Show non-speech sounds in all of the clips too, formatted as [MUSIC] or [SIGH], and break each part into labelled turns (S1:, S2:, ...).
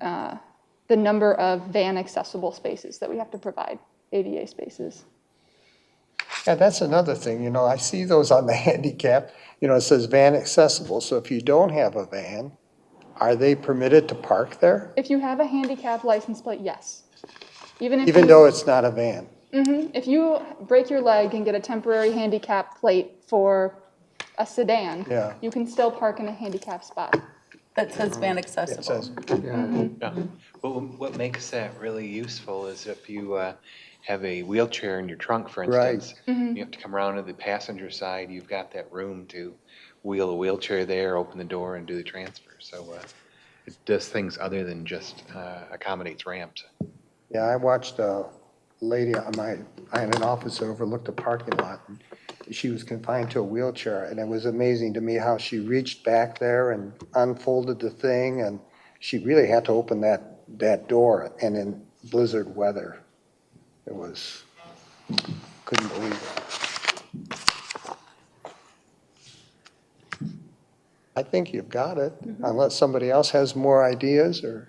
S1: uh, the number of van accessible spaces that we have to provide, ADA spaces.
S2: Yeah, that's another thing, you know, I see those on the [LAUGHS] handicap, you know, it says van accessible, so if you don't have a van, are they permitted to park there?
S1: If you have a handicap license plate, yes. Even if
S2: Even
S1: you-
S2: though it's not a van?
S1: If you break your leg and get a temporary handicap plate for a sedan,
S2: Yeah.
S1: you can still park in a handicap spot.
S3: That says van
S2: It
S3: accessible.
S2: says,
S4: Yeah, but wh- what makes that really useful is if you uh, have a wheelchair in your trunk, for
S2: Right.
S4: instance,
S3: Mm-hmm.
S4: you have to come around to the passenger side, you've got that room to wheel a wheelchair there, open the door and do the transfer. So uh, it does things other than just uh, accommodates ramps.
S2: yeah, I watched a lady on my, I had an office that overlooked a parking lot. and She was confined to a wheelchair, and it was amazing to me how she reached back there and unfolded the thing, and she really had to open that, that door, and in blizzard weather. It was, couldn't believe it. I think you've got it, unless somebody else has more ideas, or,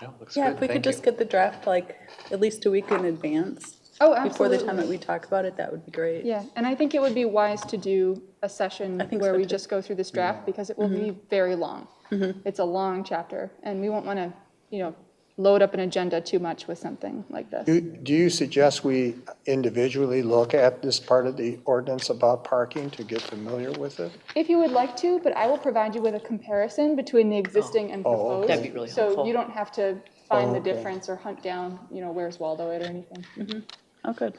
S4: No, looks
S3: Yeah,
S4: good,
S3: if we could
S4: thank
S3: just
S4: you.
S3: get the draft like at least a week in advance.
S1: Oh,
S3: Before the
S1: absolutely.
S3: time that we talk about it, that would be great.
S1: Yeah, and I think it would be wise to do a session
S3: I think
S1: where
S3: so,
S1: we
S3: too. Mm-hmm.
S1: just go through this
S2: Mm-hmm.
S1: draft because it will be very long. It's a long chapter, and we won't want to, you know, load up an agenda too much with something like this.
S2: do do you suggest we individually look at this part of the ordinance about parking to get familiar with it?
S1: If you would like to, but I will provide you with a comparison between the existing and
S2: Oh, okay.
S1: proposed.
S2: That'd
S5: be really
S1: So
S5: helpful.
S1: you don't have to find the
S2: Okay.
S1: difference or hunt down, you know, where's Waldo it or anything.
S3: Oh, good.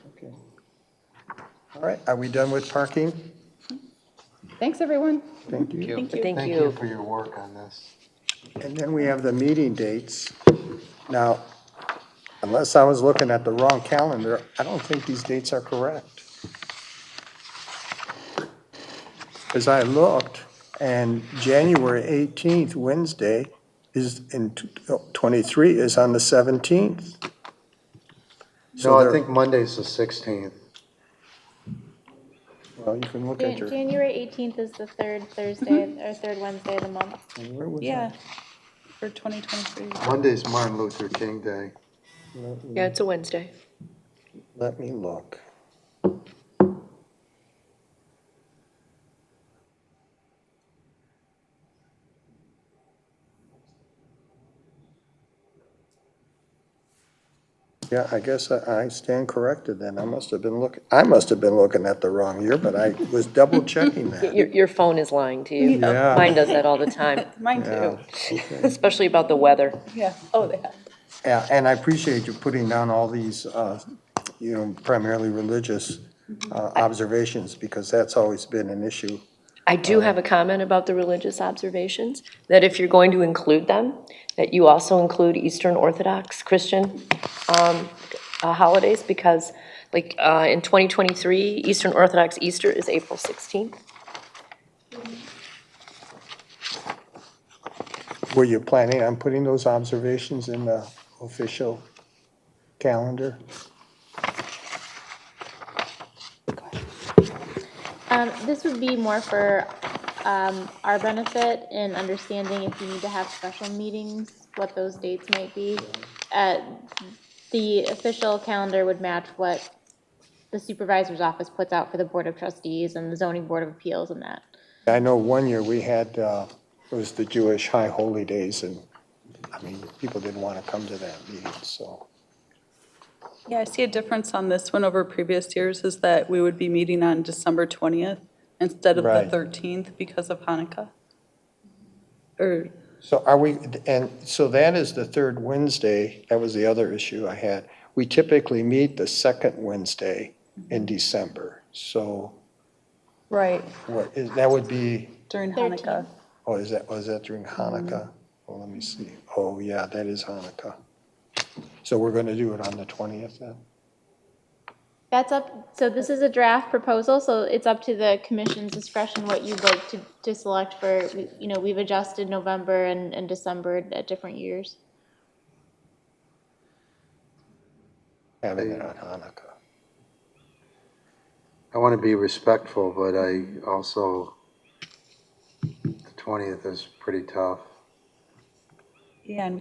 S2: All right, are we done with parking?
S1: Thanks, everyone.
S2: Thank you.
S3: Thank you.
S5: Thank you.
S6: for your work on this.
S2: And then we have the meeting dates. Now, unless I was looking at the wrong calendar, I don't think these dates are correct. As I looked, and January 18th, Wednesday, is in t- oh, 23, is on the 17th. So
S6: No, I
S2: they're-
S6: think Monday's the sixteenth.
S2: Well, you can look
S7: Jan-
S2: at your,
S7: January eighteenth is the third Thursday, or third Wednesday of the month.
S2: where was
S3: Yeah. For 2023.
S6: Monday's Martin Luther King Day.
S5: Yeah, it's a Wednesday.
S2: Let me look. Yeah, I guess I I stand corrected then. I must have been looking, I must have been looking at the wrong year, but I was double checking that.
S5: Your, your phone is lying to you.
S2: Yeah.
S5: Mine does that all the time,
S3: Mine too.
S5: especially about the weather.
S3: Yeah. Oh, yeah.
S2: Yeah, and I appreciate you putting down all these, uh, you know, primarily religious uh, observations, because that's always been an issue.
S5: I do have a comment about the religious observations, that if you're going to include them, that you also include Eastern Orthodox Christian um, uh, holidays, because like uh, in 2023, Eastern Orthodox Easter is April 16th.
S2: Were you planning on putting those observations in the official calendar?
S7: Um, this would be more for, um, our benefit in understanding if you need to have special meetings, what those dates might be. Uh, the official calendar would match what the supervisor's office puts out for the Board of Trustees and the zoning board of appeals and that.
S2: I know one year we had, uh, it was the Jewish High Holy Days, and, I mean, people didn't want to come to that meeting, so.
S3: Yeah, I see a difference on this one over previous years is that we would be meeting on December 20th instead of the
S2: Right.
S3: 13th because of Hanukkah. Or,
S2: So are we, and so that is the third Wednesday, that was the other issue I had. We typically meet the second Wednesday in December, so
S3: right,
S2: what is, that would be,
S3: during Hanukkah.
S2: oh, is that, was that during Hanukkah? Well, let me see. Oh, yeah, that is Hanukkah. So we're going to do it on the 20th then?
S7: That's up, so this is a draft proposal, so it's up to the commission's discretion what you'd like to, to select for, you know, we've adjusted November and, and December at different years.
S2: Having it on Hanukkah.
S6: I want to be respectful, but I also, the twentieth is pretty tough.
S3: Yeah, and